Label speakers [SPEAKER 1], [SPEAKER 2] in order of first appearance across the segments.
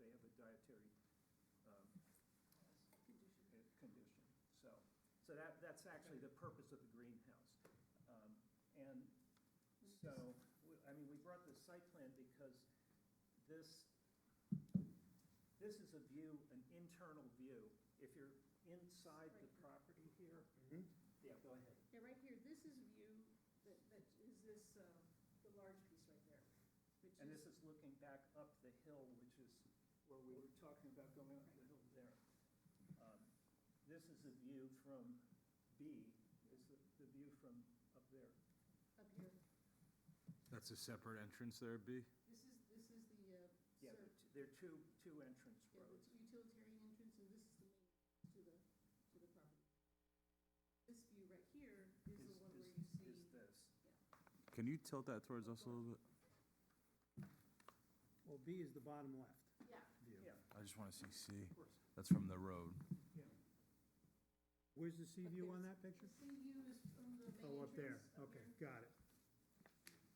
[SPEAKER 1] dietary um, uh, condition. So, so that, that's actually the purpose of the greenhouse. Um, And so, we- I mean, we brought the site plan because this, this is a view, an internal view. If you're inside the property here, yeah, go ahead.
[SPEAKER 2] Yeah, right here, this is view, that, that is this, uh, the large piece right there, which is.
[SPEAKER 1] And this is looking back up the hill, which is where we were talking about going up the hill there. Um, This is the view from B, is the, the view from up there.
[SPEAKER 2] Up here,
[SPEAKER 3] That's a separate entrance there, B?
[SPEAKER 2] this is, this is the, uh,
[SPEAKER 1] Yeah,
[SPEAKER 2] sur-
[SPEAKER 1] there are two, two entrance
[SPEAKER 2] yeah,
[SPEAKER 1] roads.
[SPEAKER 2] the utilitarian entrance, and this is the main, to the, to the property. This view right here is
[SPEAKER 1] Is-
[SPEAKER 2] the one where
[SPEAKER 1] is-
[SPEAKER 2] you see.
[SPEAKER 1] Is this.
[SPEAKER 3] Can you tilt that towards us a little bit?
[SPEAKER 4] Well, B is the bottom left.
[SPEAKER 2] Yeah,
[SPEAKER 1] Yeah,
[SPEAKER 3] I just want to see C.
[SPEAKER 1] of course,
[SPEAKER 3] That's from the road.
[SPEAKER 1] yeah.
[SPEAKER 4] Where's the sea
[SPEAKER 2] Up
[SPEAKER 4] view
[SPEAKER 2] there.
[SPEAKER 4] on that picture?
[SPEAKER 2] the sea view is from the main entrance.
[SPEAKER 4] Oh, up there, okay,
[SPEAKER 2] here,
[SPEAKER 4] got it.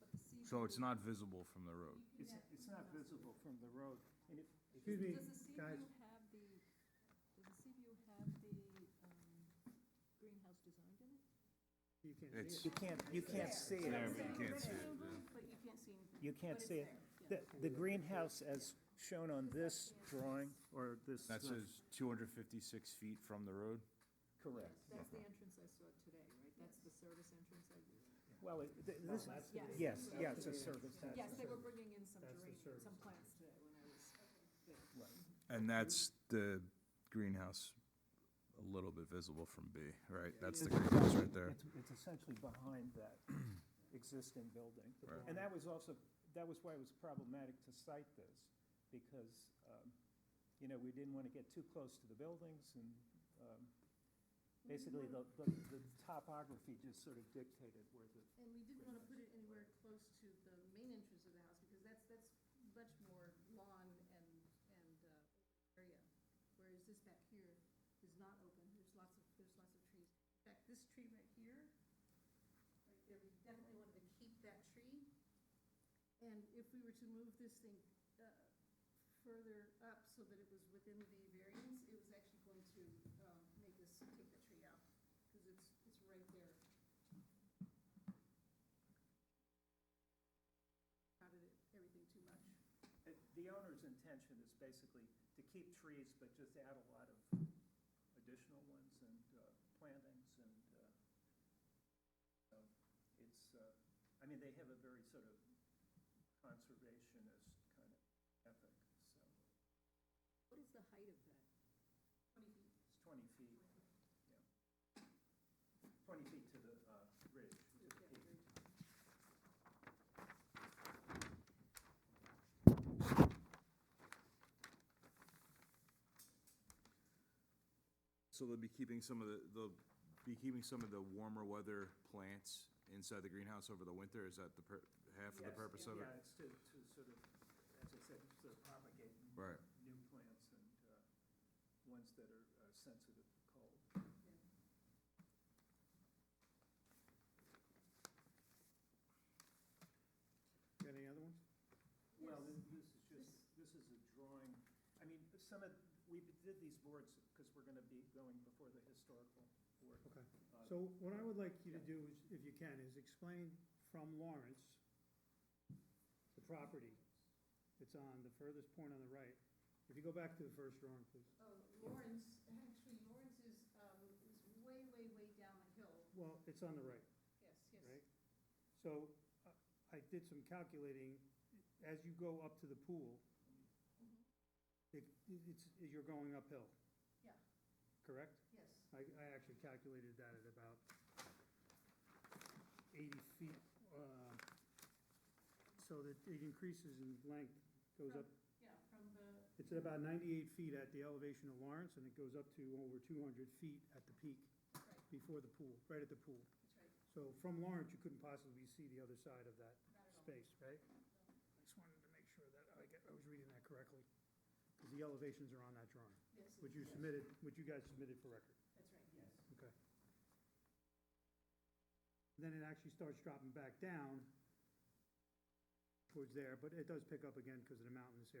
[SPEAKER 2] but the sea view-
[SPEAKER 3] So it's not visible from the
[SPEAKER 2] you
[SPEAKER 3] road.
[SPEAKER 2] can
[SPEAKER 1] It's,
[SPEAKER 2] actually
[SPEAKER 1] it's not
[SPEAKER 2] not-
[SPEAKER 1] visible from the road. And if,
[SPEAKER 4] Excuse me,
[SPEAKER 5] Does the sea
[SPEAKER 4] guys.
[SPEAKER 5] view have the, does the sea view have the, um, greenhouse designed in it?
[SPEAKER 4] You can't
[SPEAKER 3] It's-
[SPEAKER 4] see
[SPEAKER 1] you
[SPEAKER 4] it.
[SPEAKER 1] can't, you can't see it.
[SPEAKER 3] There, but you can't see it,
[SPEAKER 5] Rectangle, But you can't see anything.
[SPEAKER 1] You can't
[SPEAKER 5] But it's
[SPEAKER 1] see it.
[SPEAKER 5] there, yeah.
[SPEAKER 1] The, the greenhouse as shown on this drawing, or this.
[SPEAKER 3] That says 256 feet from the road?
[SPEAKER 1] Correct.
[SPEAKER 5] That's the entrance I saw today, right? That's the service entrance I,
[SPEAKER 1] Well, it- th- this,
[SPEAKER 4] that's the-
[SPEAKER 5] yes.
[SPEAKER 1] yes, yeah, it's a service. that's
[SPEAKER 5] Yes,
[SPEAKER 1] a
[SPEAKER 5] they were
[SPEAKER 1] service.
[SPEAKER 5] bringing in some
[SPEAKER 4] That's the
[SPEAKER 5] geranium,
[SPEAKER 4] service
[SPEAKER 5] some plants today when I was there.
[SPEAKER 1] Right.
[SPEAKER 3] And that's the greenhouse, a little bit visible from B, right? That's the greenhouse right there.
[SPEAKER 1] It's, it's essentially behind that existing building.
[SPEAKER 3] Right.
[SPEAKER 1] And that was also, that was why it was problematic to cite this, because, um, you know, we didn't want to get too close to the buildings and, um, basically the, the, the topography just sort of dictated where the,
[SPEAKER 2] And we didn't wanna put it anywhere close to the main entrance of the house, because that's, that's much more lawn and, and, uh, area. Whereas this back here is not open, there's lots of, there's lots of trees. In fact, this tree right here, right there, we definitely wanted to keep that tree. And if we were to move this thing, uh, further up so that it was within the variance, it was actually going to, um, make us take the tree out, cause it's, it's right there. crowded it, everything too much.
[SPEAKER 1] Uh, the owner's intention is basically to keep trees, but just add a lot of additional ones and, uh, plantings and, uh, so it's, uh, I mean, they have a very sort of conservationist kind of ethic, so
[SPEAKER 5] What is the height of that?
[SPEAKER 2] Twenty feet.
[SPEAKER 1] it's twenty feet, yeah. Twenty feet to the, uh, ridge, to the
[SPEAKER 2] Yeah,
[SPEAKER 1] peak.
[SPEAKER 2] very tall.
[SPEAKER 3] So they'll be keeping some of the, they'll be keeping some of the warmer weather plants inside the greenhouse over the winter? Is that the, pur- half of the
[SPEAKER 1] Yes,
[SPEAKER 3] purpose of
[SPEAKER 1] Yeah,
[SPEAKER 3] it?
[SPEAKER 1] it's to, to sort of, as I said, sort of propagate
[SPEAKER 3] Right.
[SPEAKER 1] new plants and uh, ones that are uh, sensitive to cold.
[SPEAKER 2] Yeah.
[SPEAKER 4] Got any other ones?
[SPEAKER 1] Well,
[SPEAKER 2] Yes. Um,
[SPEAKER 1] this this is just, this is a drawing, I mean, some of, we did these boards because we're gonna be going before the historical board.
[SPEAKER 4] Okay.
[SPEAKER 1] Uh,
[SPEAKER 4] So what I would like you to do is, if you can, is explain from Lawrence, the property that's on the furthest point on the right. If you go back to the first drawing, please.
[SPEAKER 2] Oh, Lawrence, actually Lawrence is, um, is way, way, way down the hill.
[SPEAKER 4] Well, it's on the right.
[SPEAKER 2] Yes, yes.
[SPEAKER 4] right? So uh, I did some calculating, as you go up to the pool,
[SPEAKER 2] Mhm.
[SPEAKER 4] it, it's, you're going uphill,
[SPEAKER 2] Yeah,
[SPEAKER 4] correct?
[SPEAKER 2] yes.
[SPEAKER 4] I, I actually calculated that at about eighty feet, uh, so that it increases in length, goes up,
[SPEAKER 2] From- Yeah, from the,
[SPEAKER 4] it's at about ninety-eight feet at the elevation of Lawrence, and it goes up to over two hundred feet at the peak,
[SPEAKER 2] right,
[SPEAKER 4] before the pool, right at the pool.
[SPEAKER 2] that's right,
[SPEAKER 4] So from Lawrence, you couldn't possibly see the other side of that
[SPEAKER 2] not at all.
[SPEAKER 4] space, right? I just wanted to make sure that I get, I was reading that correctly, because the elevations are on that drawing,
[SPEAKER 2] Yes,
[SPEAKER 4] which you
[SPEAKER 2] yes,
[SPEAKER 4] submitted, which you guys submitted for record,
[SPEAKER 2] That's right, yes.
[SPEAKER 4] okay? Then it actually starts dropping back down towards there, but it does pick up again because of the mountainous area.